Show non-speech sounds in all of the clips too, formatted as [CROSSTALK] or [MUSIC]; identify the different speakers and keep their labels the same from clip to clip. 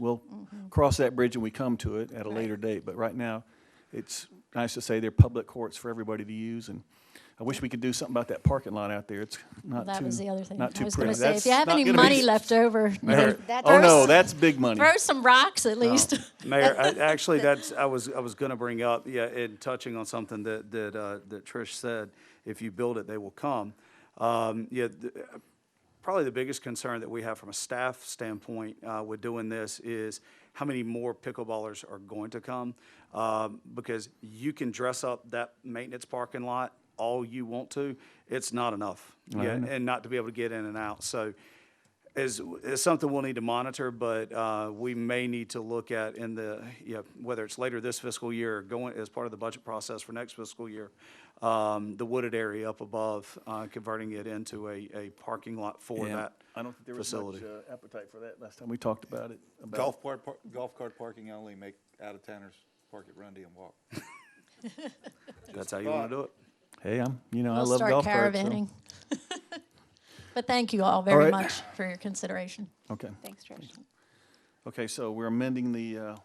Speaker 1: Mm-hmm.
Speaker 2: cross that bridge and we come to it at a later date. But right now, it's nice to say they're public courts for everybody to use, and I wish we could do something about that parking lot out there. It's not too,
Speaker 1: That was the other thing.
Speaker 2: not
Speaker 1: I
Speaker 2: too
Speaker 1: was going
Speaker 2: pretty.
Speaker 1: to say,
Speaker 2: That's
Speaker 1: if you have
Speaker 2: not
Speaker 1: any
Speaker 2: gonna be- [LAUGHS]
Speaker 1: money left over,
Speaker 2: Mayor,
Speaker 3: That-
Speaker 2: oh no,
Speaker 3: Throw-
Speaker 2: that's big money.
Speaker 1: throw some rocks
Speaker 2: [LAUGHS]
Speaker 1: at least.
Speaker 4: Uh, Mayor, I- actually, that's, I was, I was going to bring up, yeah, and touching on something that, that, uh, that Trish said, if you build it, they will come. Um, Yeah, th- probably the biggest concern that we have from a staff standpoint uh, with doing this is how many more pickleballers are going to come? Um, Because you can dress up that maintenance parking lot all you want to, it's not enough. Yeah, and not to be able to get in and out. So is, is something we'll need to monitor, but uh, we may need to look at in the, you know, whether it's later this fiscal year, or going, as part of the budget process for next fiscal year, um, the wooded area up above, uh, converting it into a, a parking lot for
Speaker 2: Yeah,
Speaker 4: that
Speaker 2: I don't think there was much
Speaker 4: facility.
Speaker 2: uh, appetite for that last time we talked about it. about-
Speaker 5: Golf part, par- golf cart parking only, make out-of-towners park at Grundy and walk.
Speaker 2: uh,
Speaker 4: That's how you want to do it?
Speaker 2: Hey, I'm, you know, I
Speaker 1: We'll
Speaker 2: love
Speaker 1: start
Speaker 2: golf carts. so-
Speaker 1: caravanning. [LAUGHS] But thank you all very
Speaker 2: right.
Speaker 1: much for your consideration.
Speaker 2: Okay,
Speaker 3: Thanks, Trish.
Speaker 2: okay, so we're amending the, uh,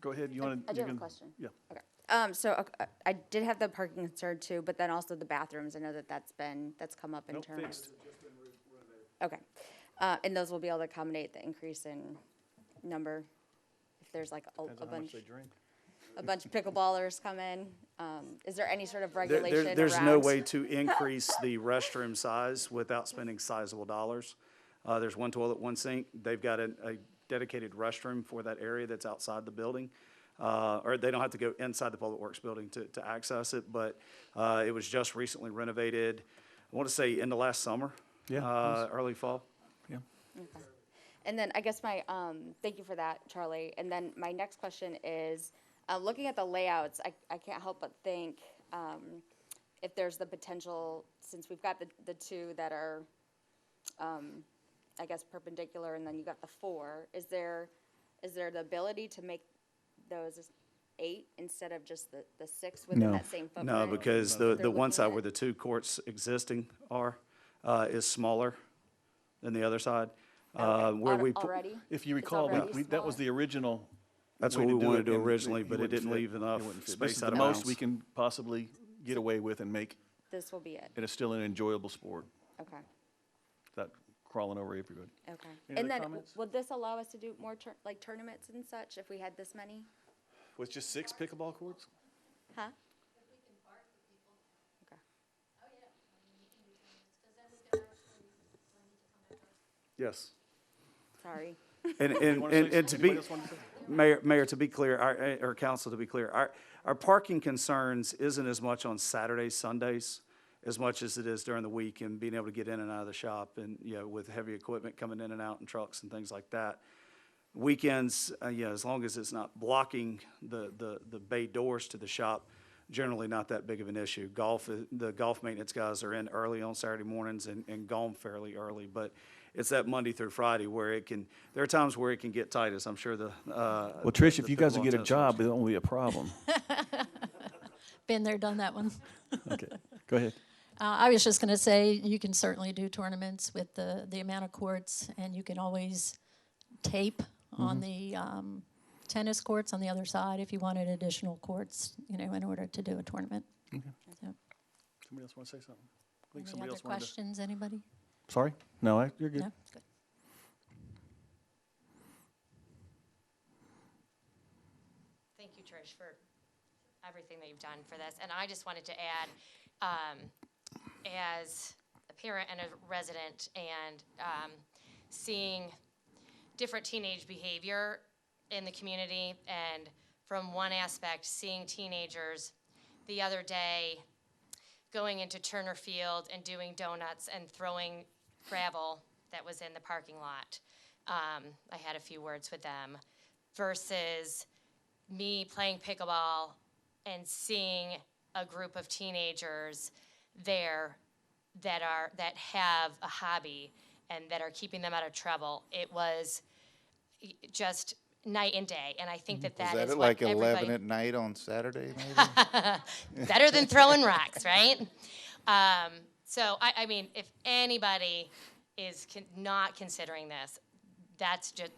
Speaker 2: go ahead, you want to?
Speaker 3: I do have a question.
Speaker 2: Yeah.
Speaker 3: Okay. Um, so uh, uh, I did have the parking concern too, but then also the bathrooms. I know that that's been, that's come up in
Speaker 2: Nope,
Speaker 3: terms.
Speaker 2: fixed.
Speaker 3: Okay. Uh, and those will be able to accommodate the increase in number, if there's like a, a bunch, a bunch of pickleballers come in. Um, is there any sort of
Speaker 4: There-
Speaker 3: regulation
Speaker 4: there- There's no
Speaker 3: around-
Speaker 4: way to increase the restroom size without spending sizable dollars. Uh, There's one toilet, one sink. They've got a a dedicated restroom for that area that's outside the building. Uh, Or they don't have to go inside the Public Works building to, to access it, but uh, it was just recently renovated, I want to say in the last summer.
Speaker 2: Yeah, it
Speaker 4: uh, Early fall.
Speaker 2: Yeah.
Speaker 3: And then I guess my, um, thank you for that, Charlie. And then my next question is, uh, looking at the layouts, I, I can't help but think, um, if there's the potential, since we've got the, the two that are, um, I guess perpendicular and then you got the four, is there, is there the ability to make those as eight instead of just the, the six within
Speaker 2: No.
Speaker 3: that same footprint?
Speaker 4: No, because the,
Speaker 3: They're
Speaker 4: the one
Speaker 3: looking
Speaker 4: side
Speaker 3: at-
Speaker 4: where the two courts existing are, uh, is smaller than the other side. uh,
Speaker 3: Okay.
Speaker 4: where
Speaker 3: Al-
Speaker 4: we pu-
Speaker 3: Already?
Speaker 2: If you
Speaker 3: It's
Speaker 2: recall, we-
Speaker 3: already
Speaker 2: we, that was
Speaker 3: smaller?
Speaker 2: the original.
Speaker 4: That's
Speaker 2: way
Speaker 4: what we
Speaker 2: do
Speaker 4: wanted
Speaker 2: it,
Speaker 4: to do
Speaker 2: and
Speaker 4: originally,
Speaker 2: it
Speaker 4: but it
Speaker 2: wouldn't
Speaker 4: didn't
Speaker 2: fit.
Speaker 4: leave enough
Speaker 2: It wouldn't fit.
Speaker 4: space out
Speaker 2: This is the
Speaker 4: of
Speaker 2: most
Speaker 4: bounds.
Speaker 2: we can possibly get away with and make
Speaker 3: This will be it.
Speaker 2: it a still an enjoyable sport,
Speaker 3: Okay,
Speaker 2: without crawling over everybody.
Speaker 3: okay.
Speaker 2: Any other
Speaker 3: And then w-
Speaker 2: comments?
Speaker 3: would this allow us to do more tour, like tournaments and such if we had this many?
Speaker 2: With just six pickleball courts?
Speaker 3: Huh?
Speaker 4: Yes.
Speaker 3: Sorry. [LAUGHS]
Speaker 4: And, and,
Speaker 2: wanna
Speaker 4: and
Speaker 2: say
Speaker 4: and to
Speaker 2: something?
Speaker 4: be,
Speaker 2: Anybody else wanna say
Speaker 4: Mayor, Mayor, to be clear, our, uh, or council, to be clear, our, our parking concerns isn't as much on Saturdays, Sundays, as much as it is during the week and being able to get in and out of the shop and, you know, with heavy equipment coming in and out and trucks and things like that. Weekends, uh, you know, as long as it's not blocking the, the, the bay doors to the shop, generally not that big of an issue. Golf, i- the golf maintenance guys are in early on Saturday mornings and, and gone fairly early, but it's that Monday through Friday where it can, there are times where it can get tight, as I'm sure the, uh.
Speaker 2: Well, Trish,
Speaker 4: the
Speaker 2: if you guys
Speaker 4: pickleball
Speaker 2: would get a
Speaker 4: tennis
Speaker 2: job, it won't be a [LAUGHS] problem.
Speaker 1: Been there, done that one.
Speaker 2: Okay, go ahead.
Speaker 1: Uh, I was just going to say, you can certainly do tournaments with the, the amount of courts, and you can always tape on
Speaker 2: Mm-hmm.
Speaker 1: the um, tennis courts on the other side if you wanted additional courts, you know, in order to do a tournament. So,
Speaker 2: Somebody else want to say something? I think
Speaker 1: Any
Speaker 2: somebody
Speaker 1: other
Speaker 2: else wanted to.
Speaker 1: questions, anybody?
Speaker 2: Sorry? No, I- you're good.
Speaker 1: No? Good.
Speaker 6: Thank you, Trish, for everything that you've done for this. And I just wanted to add, um, as a parent and a resident and, um, seeing different teenage behavior in the community and from one aspect, seeing teenagers the other day going into Turner Field and doing donuts and throwing gravel that was in the parking lot. Um, I had a few words with them versus me playing pickleball and seeing a group of teenagers there that are that have a hobby and that are keeping them out of trouble. It was y- just night and day, and I think that
Speaker 5: Was
Speaker 6: that
Speaker 5: that
Speaker 6: is
Speaker 5: at
Speaker 6: what
Speaker 5: like eleven
Speaker 6: everybody-
Speaker 5: at night on Saturday, maybe?
Speaker 6: better than throwing rocks, right? Um, so I, I mean, if anybody is con- not considering this, that's just